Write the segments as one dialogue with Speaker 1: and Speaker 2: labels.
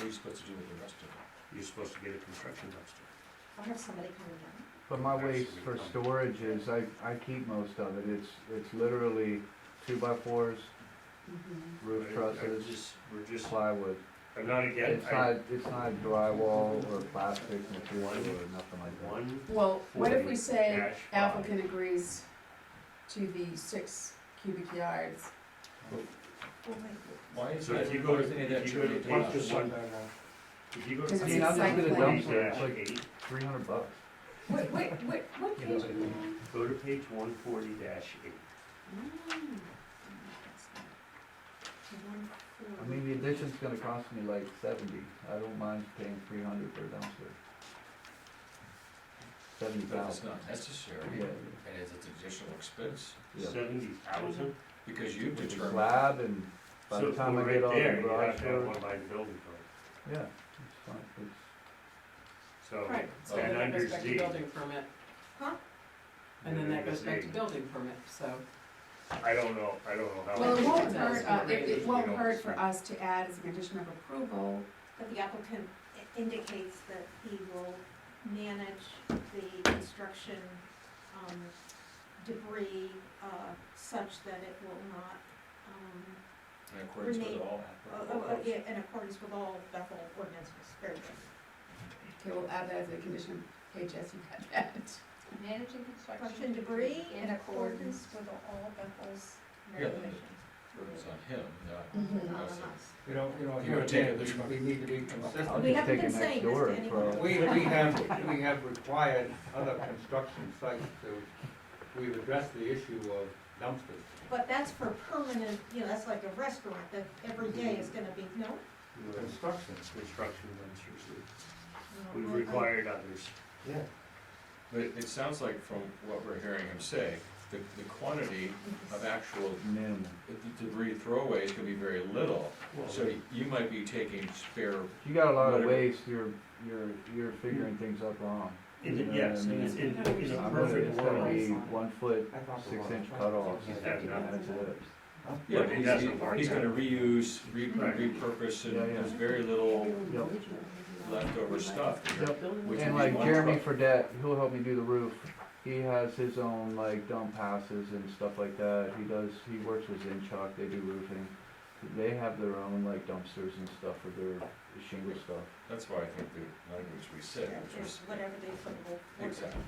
Speaker 1: are you supposed to do with the rest of it?
Speaker 2: You're supposed to get a construction dumpster.
Speaker 3: I'll have somebody coming down.
Speaker 4: But my waste for storage is, I, I keep most of it, it's, it's literally two by fours, roof
Speaker 2: But I- I
Speaker 4: trusses,
Speaker 2: just- We're just,
Speaker 4: plywood.
Speaker 2: I'm not again,
Speaker 4: It's
Speaker 2: I,
Speaker 4: not, it's not drywall or plastic material or nothing like that.
Speaker 2: one
Speaker 5: Well, what if we
Speaker 2: Forty
Speaker 5: say
Speaker 2: dash five.
Speaker 5: applicant agrees to the six cubic yards?
Speaker 3: Oh, wait.
Speaker 1: Why is
Speaker 2: So
Speaker 1: that,
Speaker 2: if you
Speaker 1: why
Speaker 2: go to-
Speaker 1: is any of
Speaker 2: if
Speaker 1: that
Speaker 2: you go to
Speaker 1: trivia
Speaker 2: one
Speaker 1: taken out?
Speaker 2: to one- If you go
Speaker 5: Because
Speaker 2: to
Speaker 4: I
Speaker 5: it's
Speaker 4: mean, I'm just
Speaker 5: site
Speaker 4: gonna
Speaker 5: plan.
Speaker 4: dump it, it's like
Speaker 2: eight,
Speaker 4: three hundred bucks.
Speaker 3: Wait, wait, wait, what
Speaker 4: You
Speaker 3: page
Speaker 4: know,
Speaker 3: are you
Speaker 4: I think-
Speaker 3: on?
Speaker 2: go to page one forty eight.
Speaker 3: Mm. That's not- the one for-
Speaker 4: I mean, the addition's gonna cost me like seventy, I don't mind paying three hundred for a dumpster. Seventy
Speaker 1: But it's
Speaker 4: thousand.
Speaker 1: not necessary,
Speaker 4: Yeah,
Speaker 1: and it's an additional expense,
Speaker 4: yeah.
Speaker 2: Seventy thousand?
Speaker 1: because you've
Speaker 4: With the
Speaker 1: determined,
Speaker 4: slab and by the time I get all
Speaker 2: So we're right
Speaker 4: the
Speaker 2: there, you have
Speaker 4: garage
Speaker 2: to have
Speaker 4: doors,
Speaker 2: one by the building code.
Speaker 4: yeah, it's fine, it's.
Speaker 2: So,
Speaker 5: Right,
Speaker 1: Oh.
Speaker 5: so then
Speaker 2: And
Speaker 5: that
Speaker 2: under
Speaker 5: goes back to
Speaker 2: Z.
Speaker 5: building permit, and then that goes back to building permit, so.
Speaker 2: I don't know, I don't know how.
Speaker 5: Well, it
Speaker 2: much
Speaker 5: won't
Speaker 2: does,
Speaker 5: hurt, uh,
Speaker 2: but
Speaker 5: it,
Speaker 2: you
Speaker 5: it won't
Speaker 2: don't-
Speaker 5: hurt for us to add as a condition of approval,
Speaker 3: But the applicant i- indicates that he will manage the construction um, debris uh, such that it will not, um,
Speaker 1: in accordance with all.
Speaker 3: uh, uh, uh, yeah, in accordance with all Bethel ordinances, very good.
Speaker 5: okay, we'll add that as a condition, hey Jess, you got that?
Speaker 6: Managing construction
Speaker 3: Construction debris in
Speaker 6: accordance
Speaker 3: accordance with all Bethel's
Speaker 1: Yeah.
Speaker 3: regulations.
Speaker 1: It's on him, not.
Speaker 4: Mm-hmm.
Speaker 5: Mhm.
Speaker 3: Not on us.
Speaker 7: You know, you know,
Speaker 1: You
Speaker 7: here
Speaker 1: would take
Speaker 7: again,
Speaker 1: it this
Speaker 7: we-
Speaker 1: way.
Speaker 7: we need to be consistent.
Speaker 4: I'll
Speaker 3: We
Speaker 4: just
Speaker 3: haven't
Speaker 4: take it
Speaker 3: been
Speaker 4: next
Speaker 3: saying this
Speaker 4: door
Speaker 3: to
Speaker 4: and
Speaker 3: anyone.
Speaker 4: throw it.
Speaker 7: We, we have, we have required other construction sites to, we've addressed the issue of dumpsters.
Speaker 3: But that's for permanent, you know, that's like a restaurant, that every day is gonna be, no?
Speaker 7: Construction.
Speaker 2: Construction dumpsters,
Speaker 3: no,
Speaker 2: we
Speaker 3: I- I-
Speaker 2: required others.
Speaker 7: Yeah.
Speaker 1: But it, it sounds like from what we're hearing him say, the, the quantity of actual
Speaker 4: Minimum.
Speaker 1: the debris throwaways can be very little.
Speaker 2: Well,
Speaker 1: So you might be taking spare
Speaker 4: If you got a lot of
Speaker 1: Whatever.
Speaker 4: waste, you're, you're, you're figuring things up wrong.
Speaker 2: In,
Speaker 4: You know
Speaker 2: the-
Speaker 4: what
Speaker 2: yes,
Speaker 4: I
Speaker 2: in,
Speaker 4: mean?
Speaker 2: in in a
Speaker 4: I'm gonna-
Speaker 2: perfect
Speaker 4: It's gonna
Speaker 2: world,
Speaker 4: be one foot,
Speaker 7: I thought the
Speaker 4: six
Speaker 7: law-
Speaker 4: inch cutoffs,
Speaker 7: Yeah.
Speaker 4: that's it.
Speaker 1: Yeah,
Speaker 2: But it
Speaker 1: he's,
Speaker 2: doesn't work
Speaker 1: he's
Speaker 2: out.
Speaker 1: gonna reuse, re-
Speaker 2: Right.
Speaker 1: repurpose, and
Speaker 4: Yeah, yeah.
Speaker 1: there's very little
Speaker 4: Yep.
Speaker 1: leftover stuff. here,
Speaker 4: Yep.
Speaker 1: which
Speaker 4: And
Speaker 1: would be
Speaker 4: like
Speaker 1: one
Speaker 4: Jeremy
Speaker 1: truck.
Speaker 4: Fredette, he'll help me do the roof, he has his own like dump houses and stuff like that, he does, he works with Zinchock, they do roofing. They have their own like dumpsters and stuff for their shingle stuff.
Speaker 1: That's why I think the language we said,
Speaker 3: Yeah,
Speaker 1: which
Speaker 3: just
Speaker 1: was,
Speaker 3: whatever they put will.
Speaker 1: exactly,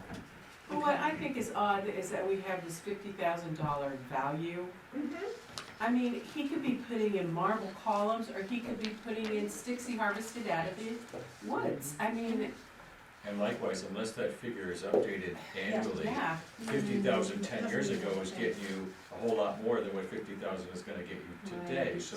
Speaker 8: Well, What I think is odd is that we have this fifty thousand dollar value.
Speaker 3: Mm-hmm.
Speaker 8: I mean, he could be putting in marble columns, or he could be putting in sticks he harvested out of his woods. I mean,
Speaker 1: and likewise, unless that figure is updated annually,
Speaker 8: yeah.
Speaker 1: fifty thousand ten years ago is getting you a whole lot more than what fifty thousand is gonna get you today,
Speaker 8: Right.
Speaker 1: so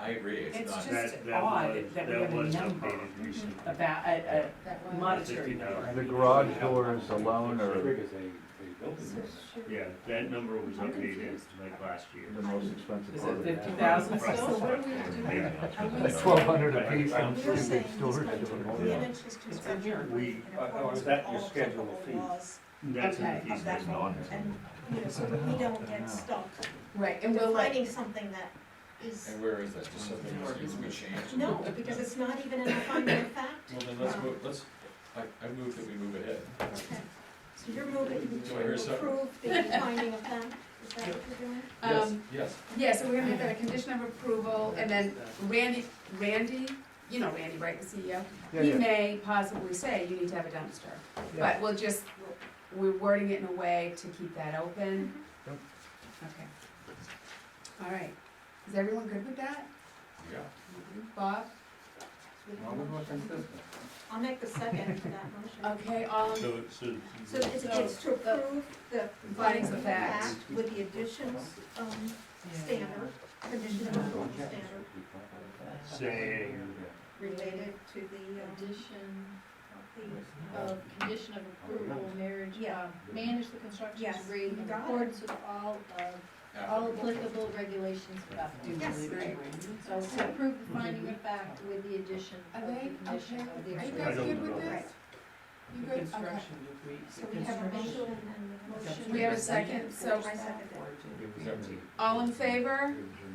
Speaker 1: I, I agree, it's
Speaker 8: It's
Speaker 1: not.
Speaker 8: just
Speaker 2: that, that
Speaker 8: odd
Speaker 2: was,
Speaker 8: that we
Speaker 2: that
Speaker 8: have a
Speaker 2: was
Speaker 8: number.
Speaker 2: updated recently.
Speaker 8: About, a,
Speaker 5: That
Speaker 8: a monetary. number.
Speaker 4: The garage doors alone are
Speaker 7: Triggers a, a building
Speaker 3: So
Speaker 7: permit.
Speaker 3: should-
Speaker 2: Yeah, that number was
Speaker 3: I'm
Speaker 2: updated
Speaker 3: confused.
Speaker 2: like last year.
Speaker 4: the most expensive
Speaker 8: Is
Speaker 4: part
Speaker 8: it
Speaker 4: of it.
Speaker 8: fifty thousand
Speaker 2: Right.
Speaker 8: still?
Speaker 5: what
Speaker 4: Like twelve hundred a piece
Speaker 2: Right.
Speaker 4: on
Speaker 3: We were saying
Speaker 4: stupid
Speaker 3: he's
Speaker 4: storage.
Speaker 3: going to
Speaker 4: doors.
Speaker 3: manage his
Speaker 8: in
Speaker 3: construction
Speaker 8: here.
Speaker 3: in
Speaker 2: We-
Speaker 7: uh, oh,
Speaker 3: accordance
Speaker 7: is
Speaker 3: with
Speaker 7: that
Speaker 3: all
Speaker 7: your schedule
Speaker 3: applicable
Speaker 7: of fees?
Speaker 3: laws
Speaker 2: That's in the
Speaker 5: Okay.
Speaker 2: piece.
Speaker 3: of that
Speaker 7: It's not.
Speaker 3: And, you know, so that we don't get stuck
Speaker 5: Right, and we'll like,
Speaker 3: defining something that is,
Speaker 1: And where is that, just something that needs to be changed?
Speaker 3: no, because it's not even in the final fact.
Speaker 1: Well, then let's move, let's, I, I move that we move ahead.
Speaker 3: Okay. So you're moving
Speaker 1: Do I hear
Speaker 3: to
Speaker 1: something?
Speaker 3: approve the finding of fact, is that what you're doing?
Speaker 1: Yes,
Speaker 5: um,
Speaker 1: yes,
Speaker 5: yeah, so we're gonna make that a condition of approval, and then Randy, Randy, you know Randy, right, the CEO?
Speaker 4: Yeah,
Speaker 5: He
Speaker 4: yeah.
Speaker 5: may possibly say you need to have a dumpster,
Speaker 4: Yeah.
Speaker 5: but we'll just, we're wording it in a way to keep that open.
Speaker 3: Mm-hmm.
Speaker 4: Yep.
Speaker 5: Okay. All right, is everyone good with that?
Speaker 1: yeah.
Speaker 5: Bob?
Speaker 3: We have a
Speaker 7: Well, we're more
Speaker 3: motion.
Speaker 7: consistent.
Speaker 3: I'll make the second to that motion.
Speaker 5: Okay, um, all in,
Speaker 2: So, so.
Speaker 3: So it's, it's to approve the findings of fact with the additions, um, standard, condition of approval standard
Speaker 2: Saying,
Speaker 3: related to the, um,
Speaker 6: Addition
Speaker 3: the,
Speaker 6: of condition of approval, marriage,
Speaker 3: Yeah.
Speaker 6: um, manage the construction
Speaker 3: Yes,
Speaker 6: debris
Speaker 3: you
Speaker 6: in
Speaker 3: got it.
Speaker 6: accordance with all of, all applicable regulations about
Speaker 8: Do
Speaker 3: Yes.
Speaker 8: we-
Speaker 5: Right.
Speaker 6: So to approve the finding of fact with the addition
Speaker 5: Are
Speaker 6: of the
Speaker 5: they,
Speaker 6: condition
Speaker 5: okay.
Speaker 6: of the.
Speaker 5: Are you
Speaker 2: I
Speaker 5: guys
Speaker 2: don't
Speaker 5: good with
Speaker 2: know.
Speaker 5: this? You
Speaker 8: The
Speaker 5: good? Okay.
Speaker 8: Construction, if we.
Speaker 3: so we have a motion
Speaker 8: construction-
Speaker 3: and then a motion.
Speaker 5: We have a second, so
Speaker 3: I second it.
Speaker 1: Is that-
Speaker 5: All in favor?
Speaker 1: Aye.